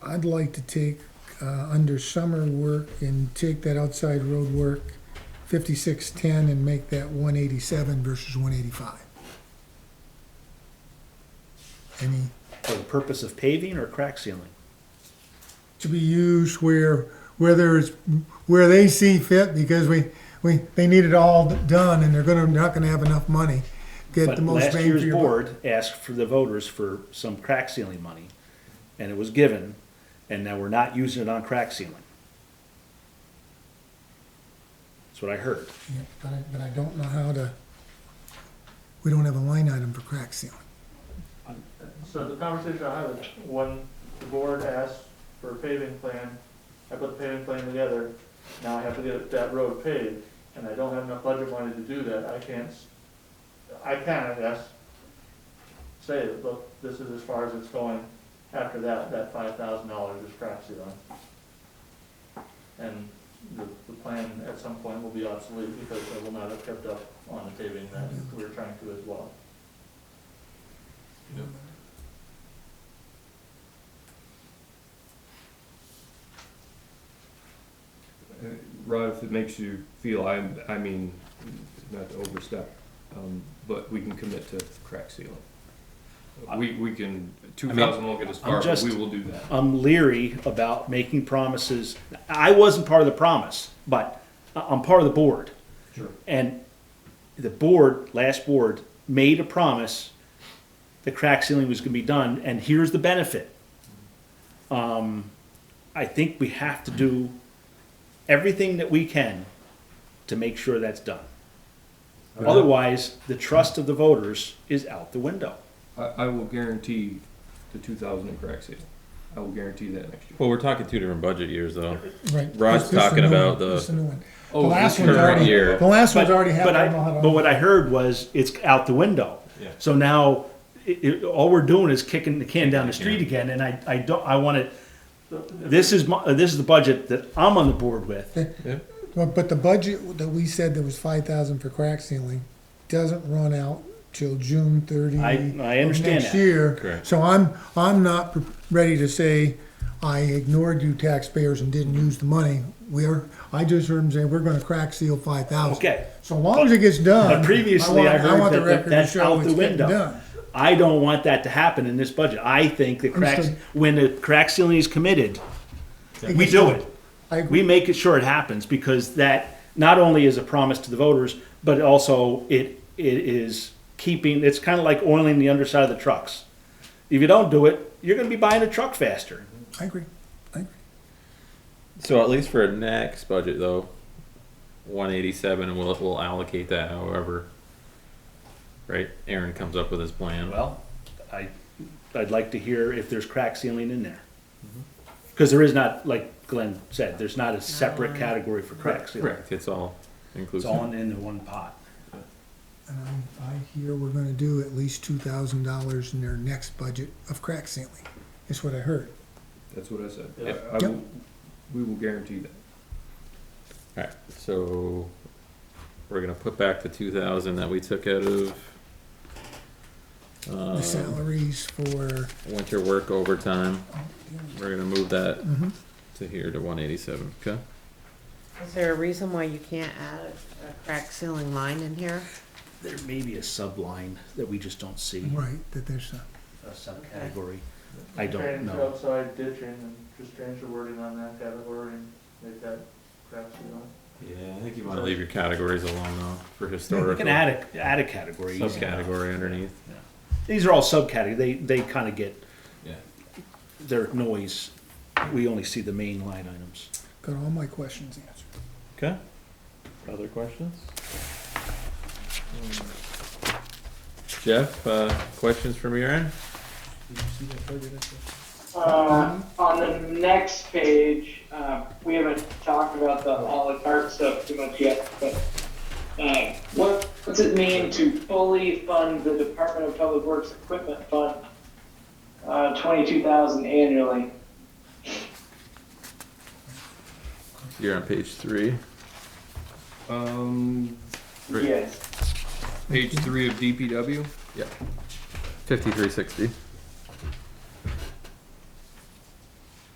I'd like to take, uh, under summer work and take that outside road work, fifty-six ten and make that one eighty-seven versus one eighty-five. Any, For the purpose of paving or crack sealing? to be used where, where there's, where they see fit, because we, we, they need it all done, and they're gonna, not gonna have enough money. Get But the most last bang for year's your buck. board asked for the voters for some crack sealing money, and it was given, and now we're not using it on crack sealing. That's what I heard. Yeah, But I, but I don't know how to, we don't have a line item for crack sealing. So the conversation I had is when the board asked for a paving plan, I put the paving plan together. Now I have to get that road paved and I don't have enough budget money to do that. I can't, s- I can, I guess, say, look, this is as far as it's going. After that, that five thousand dollars is crap ceiling. And the, the plan at some point will be obsolete because I will not have kept up on the paving that we were trying to as well. Uh, Rod, if it makes you feel, I, I mean, not to overstep, um, but we can commit to crack sealing. We, we can, two thousand won't get us far, but just- we will do that. I'm leery about making promises. I wasn't part of the promise, but I- I'm part of the board. Sure. And the board, last board, made a promise the crack ceiling was gonna be done, and here's the benefit. Um, I think we have to do everything that we can to make sure that's done. Otherwise, the trust of the voters is out the window. I, I will guarantee the two thousand in crack sealing. I will guarantee that next year. Well, we're talking two different budget years, though. Right. Rod's This- this is talking the new one. about the- This is the new one. The Oh, last this one's current already, year. the last one's But- already But happened. I I, don't know how to- but what I heard was it's out the window. Yeah. So now, i i all we're doing is kicking the can down the street again, and I, I don't, I want to, this is my, this is the budget that I'm on the board with. But, but the budget that we said there was five thousand for crack ceiling doesn't run out till June thirty. I- I understand of Next that. year. Correct. So I'm, I'm not pre- ready to say, I ignored you taxpayers and didn't use the money. We're, I just heard him say, we're gonna crack seal five thousand. Okay. So long as it gets done. But previously, want- I heard want the that- record that to that's show out the it's getting window. done. I don't want that to happen in this budget. I think the cracks, Understood. when the crack ceiling is committed, It we gets do done. it. I agree. we make it sure it happens because that not only is a promise to the voters, but also it it is keeping. It's kind of like oiling the underside of the trucks. If you don't do it, you're going to be buying a truck faster. I agree. I agree. So at least for next budget, though, one eighty-seven, and we'll we'll allocate that however. Right, Aaron comes up with his plan. Well, I I'd like to hear if there's crack sealing in there because there is not, like Glenn said, there's not a separate category for crack sealing. correct. It's all It's inclusive. all in, in the one pot. And I, Um, I hear we're gonna do at least two thousand dollars in their next budget of crack sealing, is what I heard. That's what I said. Yep. I- I will, we will guarantee that. All right, so we're gonna put back the two thousand that we took out of. The Uh, salaries for, oh, winter work overtime. We're gonna move that Mhm. to here to one eighty-seven. Okay. Is there a reason why you can't add a- a crack ceiling line in here? There may be a subline that we just don't see, right, that there's, uh, a- a subcategory. I don't Change know. outside ditching and just change the wording on that category and make that crap ceiling. Yeah, I think you want to leave your categories alone though for historical. You can add a, add a category. subcategory underneath. These are all subcategory, they, they kind of get Yeah. their noise. We only see the main line items. got all my questions answered. Okay. Other questions? Hmm. Jeff, uh, questions from your end? Uh, on the next page, uh, we haven't talked about the à la carte stuff too much yet, but uh, what, what's it mean to fully fund the Department of Public Works Equipment Fund, uh, twenty-two thousand annually? You're on page three. Um, Right. Yes. page three of DPW, Yep. Fifty-three sixty.